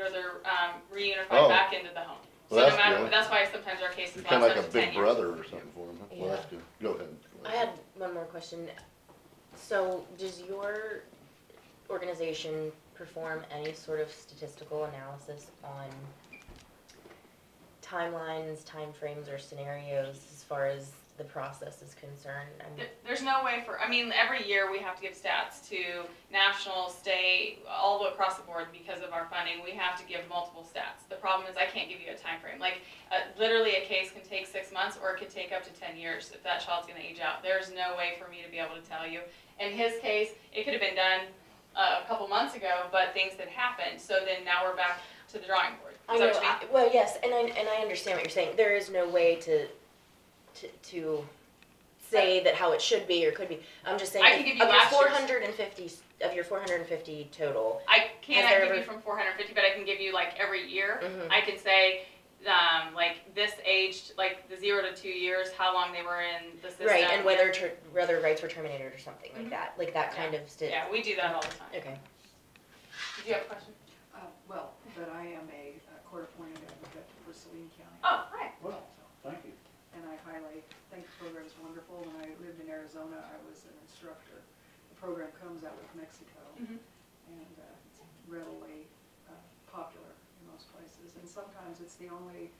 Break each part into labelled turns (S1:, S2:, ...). S1: or they're um, reunified
S2: Oh.
S1: back into the home. So no
S2: Well, that's
S1: matter,
S2: good.
S1: that's why sometimes our cases
S2: You're
S1: last up
S2: kind
S1: to ten
S2: of like a
S1: years.
S2: big brother or something for them. Well,
S3: Yeah.
S2: that's good. Go ahead.
S3: I had one more question. So, does your organization perform any sort of statistical analysis on timelines, timeframes, or scenarios as far as the process is concerned? I'm-
S1: There- There's no way for, I mean, every year we have to give stats to national, state, all the way across the board because of our funding. We have to give multiple stats. The problem is I can't give you a time frame. Like, uh, literally a case can take six months or it could take up to ten years if that child's gonna age out. There's no way for me to be able to tell you. In his case, it could have been done uh, a couple months ago, but things had happened, so then now we're back to the drawing board. Is
S3: I
S1: that
S3: know.
S1: what you mean?
S3: I, well, yes, and I and I understand what you're saying. There is no way to to, to say that how it should be or could be. I'm just saying.
S1: I can
S3: if-
S1: give you
S3: of
S1: last year's.
S3: your 450 of your 450 total.
S1: I
S3: Has there
S1: cannot give you
S3: ever-
S1: from four hundred fifty, but I can give you like every year.
S3: Mhm.
S1: I can say, um, like this aged, like the zero to two years, how long they were in the system.
S3: Right, and whether ter- whether rights were terminated or something
S1: Mhm.
S3: like that, like that kind of sti-
S1: Yeah, we do that all the time. Did
S3: Okay.
S1: you have a question?
S4: Uh, well, but I am a uh, court-appointed advocate for Saline County.
S1: Oh, right.
S5: Well, thank you.
S4: And I highly think the program is wonderful. When I lived in Arizona, I was an instructor. The program comes out of Mexico
S1: Mhm.
S4: and uh, it's readily uh, popular in most places. And sometimes it's the only,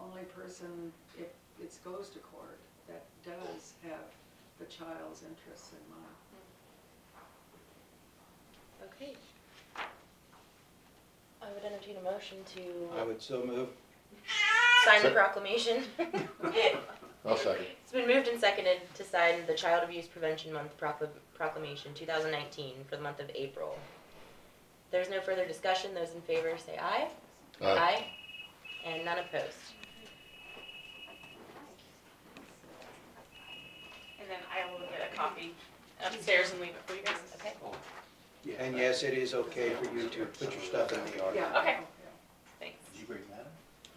S4: only person, if it goes to court, that does have the child's interests in mind.
S3: Okay. I would entertain a motion
S6: I
S3: to
S2: Uh,
S6: would so move.
S3: sign the
S2: Sec-
S3: proclamation. It's
S2: I'll second.
S3: been moved and seconded to sign the Child Abuse Prevention Month procl- proclamation, two thousand nineteen, for the month of April. There's no further discussion, those in favor say aye.
S2: Aye.
S3: And none opposed.
S1: And then I will get a copy upstairs and leave it for you guys.
S3: Okay.
S6: And yes, it is okay for you to put your stuff in the yard.
S4: Yeah,
S1: Okay. Thanks.
S5: Did you bring that?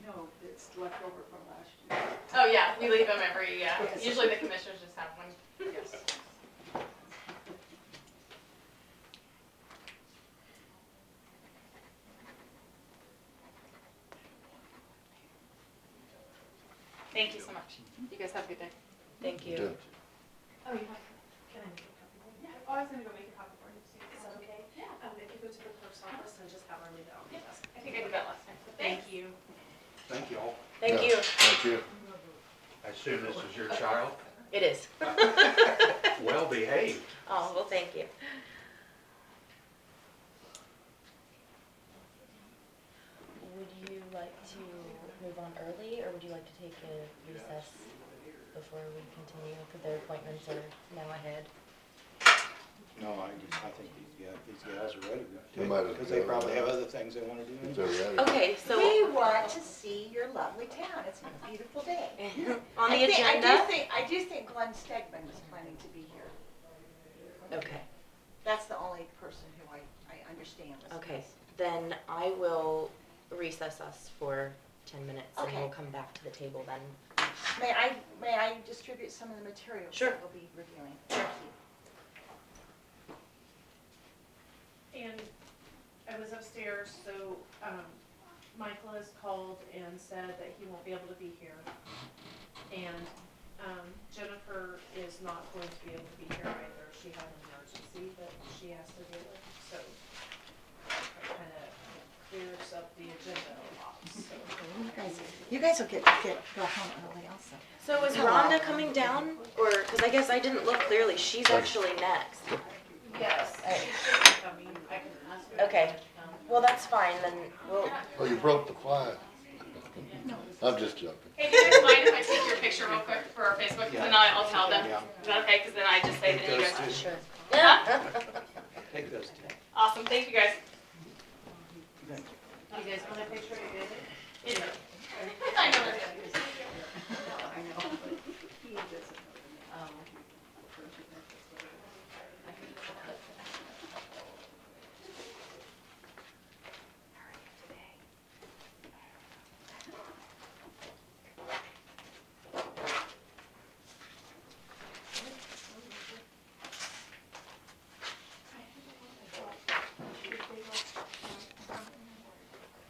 S4: No, it's left over from last year.
S1: Oh, yeah, we leave them every, yeah,
S4: Yes.
S1: usually the commissioners just have one.
S4: Yes.
S1: Thank you so much. You guys have a good day.
S3: Thank
S2: You
S3: you.
S2: did.
S7: Oh, you want, can I make a copy? Yeah, oh, I was gonna go make a copy for you, Sue. Is that okay? Yeah. Um, if you go to the clerk's office and just have her leave it on the desk.
S1: I think I did that last time.
S7: Thank you.
S6: Thank you all.
S3: Thank
S2: Yeah,
S3: you.
S2: Thank you.
S5: I assume this is your child?
S3: It is.
S5: Well behaved.
S3: Oh, well, thank you. Would you like to move on early, or would you like to take a recess before we continue, because their appointments are now ahead?
S6: No, I, I think these, yeah, these guys are ready to
S2: They
S6: do
S2: might
S6: it,
S2: have-
S6: because they probably have other things they wanna do.
S2: It's all right.
S3: Okay,
S8: We want to see your lovely town. It's a beautiful day.
S3: on the
S8: I think- I
S3: agenda?
S8: do think, I do think Glenn Stegman was planning to be here.
S3: Okay,
S8: That's the only person who I, I understand was.
S3: okay, then I will recess us for ten minutes, and we'll
S8: Okay.
S3: come back to the table then.
S8: May I, may I distribute some of the materials?
S3: Sure.
S8: That we'll be reviewing. Thank you.
S7: And I was upstairs, so, um, Michael has called and said that he won't be able to be here. And, um, Jennifer is not going to be able to be here either. She had an emergency that she has to deal with, so it kinda clears up the agenda a lot, so.
S8: Well, You guys, you guys will get, get, go home early also.
S3: So is Rhonda coming down, or, because I guess I didn't look clearly, she's actually next.
S7: Yes,
S3: Alright.
S7: she should be coming. I can ask her.
S3: Okay. Well, that's fine, then we'll,
S2: Oh, you broke the flag. I'm just joking.
S1: Hey, do you guys mind if I take your picture real quick for our Facebook, because then I- I'll tell them?
S6: Yeah.
S1: Is that okay? Because then I just say that you guys.
S3: sure.
S6: Take those two.
S1: Awesome. Thank you guys.
S7: You guys want a picture of